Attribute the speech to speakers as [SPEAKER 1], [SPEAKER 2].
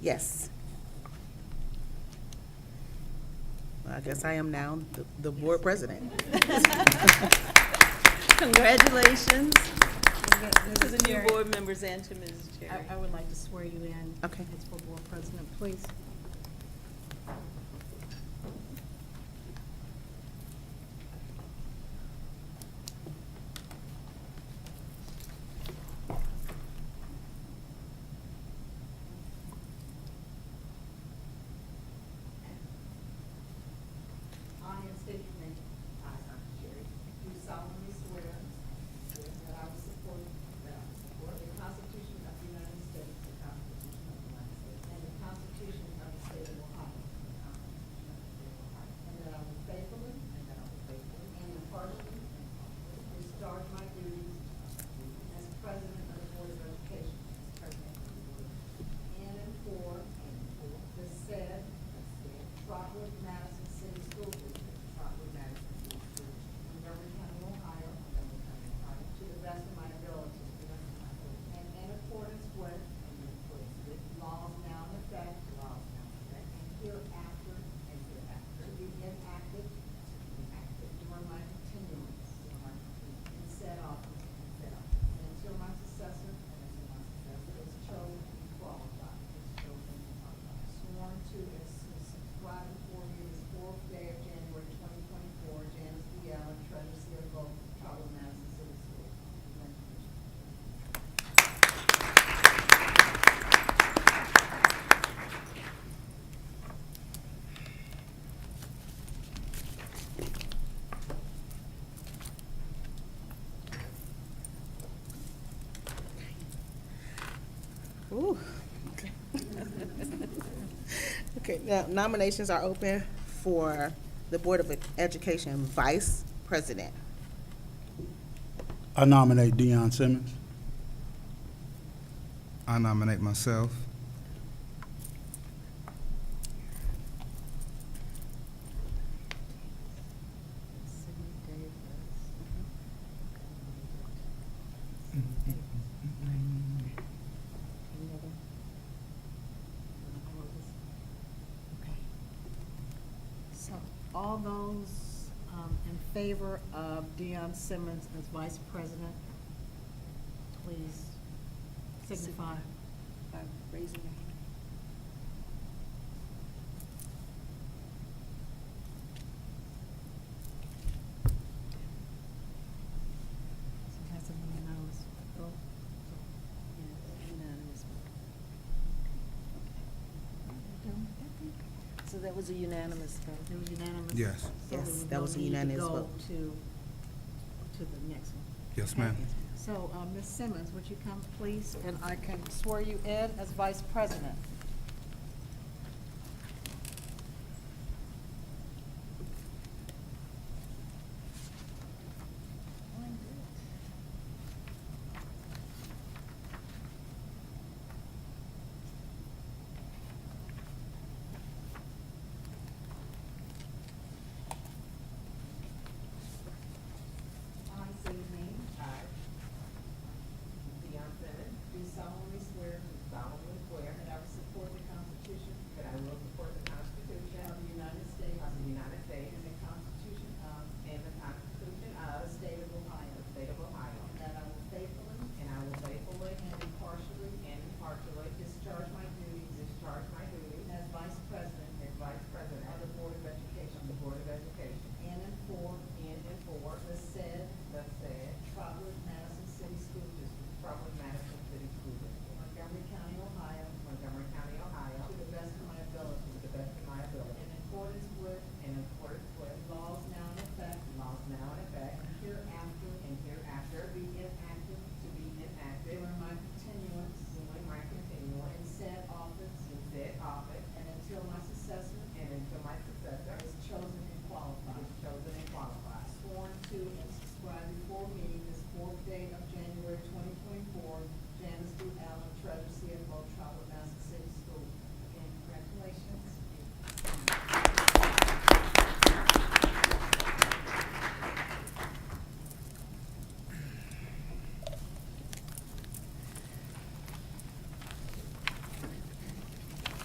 [SPEAKER 1] Yes. I guess I am now the- the board president.
[SPEAKER 2] Congratulations to
[SPEAKER 3] Mrs.
[SPEAKER 2] the new
[SPEAKER 3] Cherry,
[SPEAKER 2] board members and to Mrs. Cherry.
[SPEAKER 3] I I would like to swear you in.
[SPEAKER 1] Okay.
[SPEAKER 3] As for board president, please.
[SPEAKER 4] I am stating your name. I, Dr. Cherry. Do solemnly swear. That I will support. That I will support. The Constitution of the United States. The Constitution of the United States. And the Constitution of the State of Ohio. The Constitution of the State of Ohio. And that I will faithfully. And that I will faithfully. And impartially. Discharge my duties. As president of the Board of Education. As president of the Board of Education. In and for. And for. The said. The said. Trotwood Madison City School District. Trotwood Madison City School District. In Montgomery County, Ohio. Montgomery County, Ohio. To the best of my ability. To the best of my ability. And in accordance with. And in accordance with. Laws now in effect. Laws now in effect. And hereafter. And hereafter. To be enacted. To be enacted. During my continuance. During my continuance. In said office. In said office. And until my successor. And until my successor. Is chosen and qualified. Is chosen and qualified. Sworn to and subscribed before me this fourth day of January twenty twenty-four. Janice B. Allen, Treasurer, CFO, Tribal Madison City School. Congratulations.
[SPEAKER 1] Ooh. Okay. Okay, now nominations are open for the Board of Education Vice President.
[SPEAKER 5] I nominate Deion Simmons.
[SPEAKER 6] I nominate myself.
[SPEAKER 3] Okay. So all those um, in favor of Deion Simmons as vice president, please signify.
[SPEAKER 2] By raising your hand.
[SPEAKER 3] So that's a unanimous vote.
[SPEAKER 2] Yes, unanimous vote. So that was a unanimous
[SPEAKER 3] It
[SPEAKER 2] vote.
[SPEAKER 3] was unanimous?
[SPEAKER 6] Yes.
[SPEAKER 3] So
[SPEAKER 1] Yes,
[SPEAKER 3] then we
[SPEAKER 1] that
[SPEAKER 3] don't
[SPEAKER 1] was a
[SPEAKER 3] need to
[SPEAKER 1] unanimous
[SPEAKER 3] go
[SPEAKER 1] vote.
[SPEAKER 3] To, to the next one.
[SPEAKER 6] Yes, ma'am.
[SPEAKER 3] So, uh, Ms. Simmons, would you come, please, and I can swear you in as vice president?
[SPEAKER 4] I say your name. I. Deion Simmons. Do solemnly swear. Do solemnly swear. That I will support the Constitution. That I will support the Constitution. Of the United States. Of the United States. And the Constitution of. And the Constitution of. The State of Ohio. The State of Ohio. And that I will faithfully. And I will faithfully. And impartially. And impartially. Discharge my duties. Discharge my duties. As Vice President. As Vice President. Of the Board of Education. Of the Board of Education. In and for. In and for. The said. The said. Trotwood Madison City School District. Trotwood Madison City School District. Montgomery County, Ohio. Montgomery County, Ohio. To the best of my ability. To the best of my ability. In accordance with. In accordance with. Laws now in effect. Laws now in effect. And hereafter. And hereafter. Be enacted. To be enacted. During my continuance. During my continuance. In said office. In said office. And until my successor